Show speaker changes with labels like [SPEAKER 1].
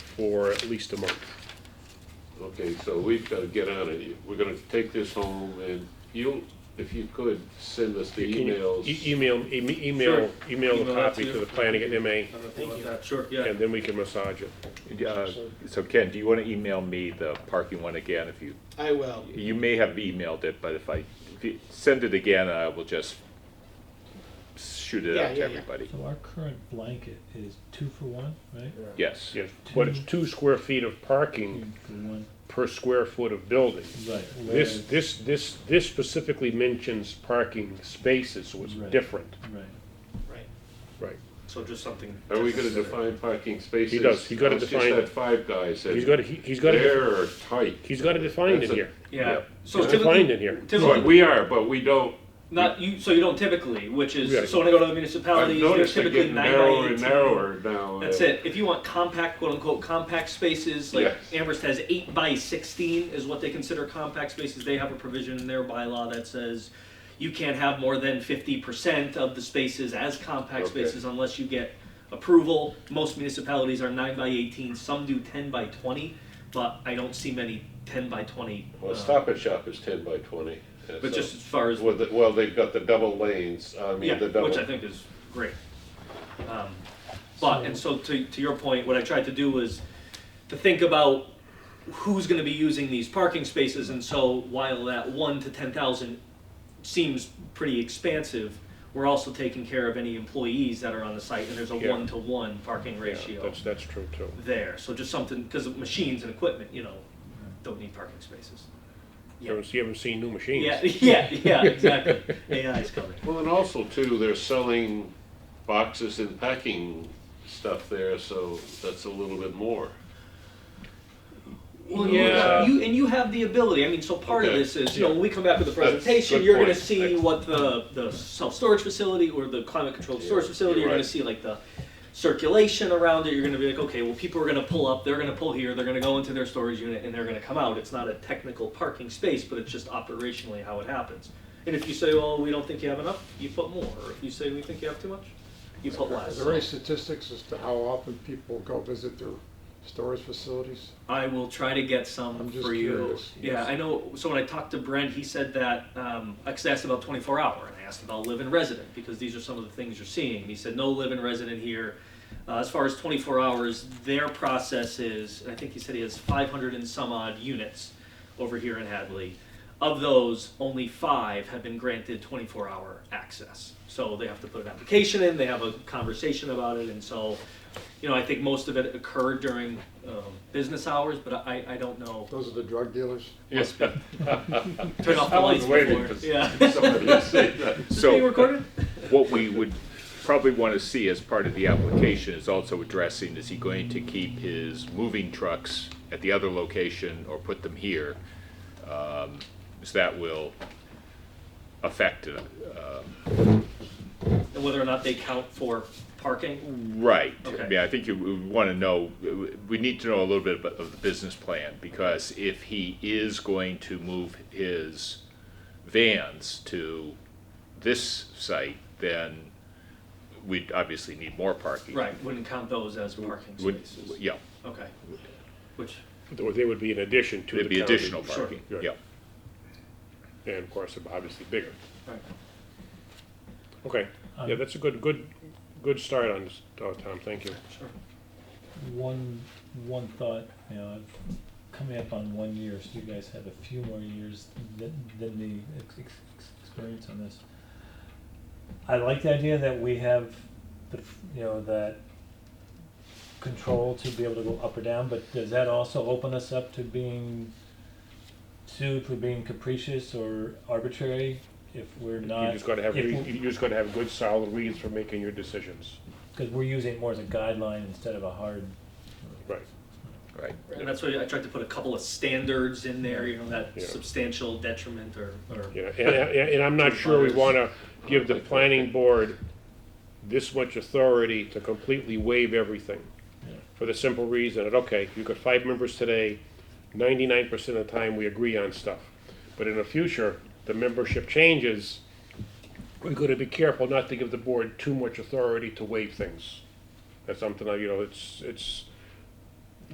[SPEAKER 1] for at least a month.
[SPEAKER 2] Okay, so we've got to get on it. We're going to take this home and you, if you could, send us the
[SPEAKER 1] Can you
[SPEAKER 2] emails.
[SPEAKER 1] e- Email, e- email,
[SPEAKER 3] Sure.
[SPEAKER 1] email the
[SPEAKER 3] Email that
[SPEAKER 1] copy
[SPEAKER 3] to
[SPEAKER 1] to
[SPEAKER 3] you.
[SPEAKER 1] the planning at MA,
[SPEAKER 3] Thank you. Sure, yeah.
[SPEAKER 1] and then we can massage it.
[SPEAKER 4] Uh, So Ken, do you want to email me the parking one again? If you,
[SPEAKER 5] I will.
[SPEAKER 4] you may have emailed it, but if I, if you send it again, I will just shoot it
[SPEAKER 5] Yeah,
[SPEAKER 4] out to
[SPEAKER 5] yeah, yeah.
[SPEAKER 4] everybody.
[SPEAKER 6] So our current blanket is two for one, right?
[SPEAKER 4] Yes.
[SPEAKER 1] Yes, but it's two square feet of parking
[SPEAKER 6] For one,
[SPEAKER 1] per square foot of building.
[SPEAKER 6] right.
[SPEAKER 1] This, this, this, this specifically mentions parking spaces, so it's
[SPEAKER 6] Right.
[SPEAKER 1] different.
[SPEAKER 6] Right.
[SPEAKER 5] Right.
[SPEAKER 1] Right.
[SPEAKER 3] So just something.
[SPEAKER 2] Are we going to define parking spaces?
[SPEAKER 1] He does. He's gotta
[SPEAKER 2] It's just
[SPEAKER 1] define
[SPEAKER 2] that
[SPEAKER 1] it.
[SPEAKER 2] five guys.
[SPEAKER 1] He's
[SPEAKER 2] and
[SPEAKER 1] got, he- he's got,
[SPEAKER 2] They're tight.
[SPEAKER 1] he's got it defined in
[SPEAKER 2] That's a-
[SPEAKER 1] here.
[SPEAKER 3] Yeah. So
[SPEAKER 1] It's
[SPEAKER 3] typically-
[SPEAKER 1] defined in here.
[SPEAKER 2] But
[SPEAKER 3] Typically,
[SPEAKER 2] we are, but we don't,
[SPEAKER 3] not you, so you don't typically, which
[SPEAKER 1] Yeah.
[SPEAKER 3] is, so when I go to the
[SPEAKER 2] I've
[SPEAKER 3] municipalities, they're
[SPEAKER 2] noticed they're
[SPEAKER 3] typically
[SPEAKER 2] getting
[SPEAKER 3] nine by
[SPEAKER 2] narrower and
[SPEAKER 3] eighteen.
[SPEAKER 2] narrower now.
[SPEAKER 3] That's
[SPEAKER 2] and-
[SPEAKER 3] it. If you want compact, quote unquote, compact spaces, like
[SPEAKER 2] Yes.
[SPEAKER 3] Amherst has eight by sixteen is what they consider compact spaces. They have a provision in their bylaw that says you can't have more than fifty percent of the spaces as compact
[SPEAKER 2] Okay.
[SPEAKER 3] spaces unless you get approval. Most municipalities are nine by eighteen, some do ten by twenty, but I don't see many ten by twenty.
[SPEAKER 2] Well,
[SPEAKER 3] uh,
[SPEAKER 2] Stop and Shop is ten by twenty. and
[SPEAKER 3] But
[SPEAKER 2] so-
[SPEAKER 3] just as far as,
[SPEAKER 2] Well, the- well, they've got the double lanes, I mean,
[SPEAKER 3] yeah,
[SPEAKER 2] the double.
[SPEAKER 3] which I think is great. Um, But, and so to, to your point, what I tried to do was to think about who's gonna be using these parking spaces, and so while that one to ten thousand seems pretty expansive, we're also taking care of any employees that are on the site, and there's a
[SPEAKER 1] Yeah.
[SPEAKER 3] one-to-one parking
[SPEAKER 1] Yeah,
[SPEAKER 3] ratio
[SPEAKER 6] um,
[SPEAKER 1] That's, that's true too.
[SPEAKER 3] there, so just something, because machines and equipment, you know, don't need parking spaces.
[SPEAKER 1] You haven't, you haven't seen new machines.
[SPEAKER 3] Yeah, yeah, yeah, exactly, AI is coming.
[SPEAKER 2] Well, and also too, they're selling boxes and packing stuff there, so that's a little bit more.
[SPEAKER 3] Well,
[SPEAKER 1] Yeah.
[SPEAKER 3] you, and you have the ability. I mean, so part of
[SPEAKER 2] Okay.
[SPEAKER 3] this is, you know, when we come back with the
[SPEAKER 2] That's a good
[SPEAKER 3] presentation, you're going to
[SPEAKER 2] point.
[SPEAKER 3] see
[SPEAKER 2] Excellent.
[SPEAKER 3] what the, the self storage facility or the climate controlled storage
[SPEAKER 2] Yeah,
[SPEAKER 3] facility,
[SPEAKER 2] you're
[SPEAKER 3] you're going
[SPEAKER 2] right.
[SPEAKER 3] to see like the circulation around it. You're going to be like, okay, well, people are going to pull up, they're going to pull here, they're going to go into their storage unit, and they're going to come out. It's not a technical parking space, but it's just operationally how it happens. And if you say, well, we don't think you have enough, you put more. Or if you say we think you have too much, you put
[SPEAKER 7] Are
[SPEAKER 3] less.
[SPEAKER 7] there any statistics as to how often people go visit their storage facilities?
[SPEAKER 3] I will try to get some
[SPEAKER 7] I'm just
[SPEAKER 3] for you.
[SPEAKER 7] curious.
[SPEAKER 3] Yeah, I know. So when I talked to Brent, he said that um, I asked about 24 hour, and I asked about live-in resident because these are some of the things you're seeing. He said no live-in resident here. Uh, as far as 24 hours, their process is, and I think he said he has 500 and some odd units over here in Hadley. Of those, only five have been granted 24 hour access. So they have to put an application in, they have a conversation about it, and so, you know, I think most of it occurred during um, business hours, but I, I don't know.
[SPEAKER 7] Those are the drug dealers?
[SPEAKER 2] Yes.
[SPEAKER 3] Turn off the
[SPEAKER 2] I was
[SPEAKER 3] lights
[SPEAKER 2] waiting
[SPEAKER 3] before.
[SPEAKER 2] for
[SPEAKER 3] Yeah.
[SPEAKER 2] Somebody to say that.
[SPEAKER 3] Is this being
[SPEAKER 4] So
[SPEAKER 3] recorded?
[SPEAKER 4] what we would probably want to see as part of the application is also addressing, is he going to keep his moving trucks at the other location or put them here? Um, So that will affect, it.
[SPEAKER 3] And whether or not they count for parking?
[SPEAKER 4] Right. I
[SPEAKER 3] Okay.
[SPEAKER 4] mean, I think you want to know, we need to know a little bit about of the business plan, because if he is going to move his vans to this site, then we'd obviously need more parking.
[SPEAKER 3] Right, wouldn't count those as parking
[SPEAKER 4] Would,
[SPEAKER 3] spaces.
[SPEAKER 4] yeah,
[SPEAKER 3] Okay. Which,
[SPEAKER 1] Or they would be in addition to the
[SPEAKER 4] it'd be
[SPEAKER 1] county.
[SPEAKER 4] additional
[SPEAKER 3] Sure.
[SPEAKER 4] parking,
[SPEAKER 1] Right.
[SPEAKER 4] yeah.
[SPEAKER 1] And of course, obviously bigger.
[SPEAKER 3] all right.
[SPEAKER 1] Okay, yeah,
[SPEAKER 6] Um,
[SPEAKER 1] that's a good, good, good start on this, uh, Tom, thank you.
[SPEAKER 3] sure.
[SPEAKER 6] One, one thought, you know, I've- coming up on one year, so you guys have a few more years than, than me ex- ex- ex- experience on this. I like the idea that we have the, f- you know, that control to be able to go up or down, but does that also open us up to being sued for being capricious or arbitrary if we're not?
[SPEAKER 1] You just gotta have,
[SPEAKER 6] if
[SPEAKER 1] re-
[SPEAKER 6] we-
[SPEAKER 1] you just gotta have good solid reasons for making your decisions.
[SPEAKER 6] Because we're using it more as a guideline instead of a hard.
[SPEAKER 1] Right.
[SPEAKER 4] Right.
[SPEAKER 3] And that's why I tried to put a couple of standards in there, you know, that
[SPEAKER 1] Yeah.
[SPEAKER 3] substantial detriment or, or,
[SPEAKER 1] Yeah, and, and and I'm not sure we wanna give the planning board this much authority to completely waive everything. For the simple reason that, okay, you've got five members today, ninety-nine percent of the time we agree on stuff. But in the future, the membership changes, we're gonna be careful not to give the board too much authority to waive things. That's something, I- you know, it's, it's,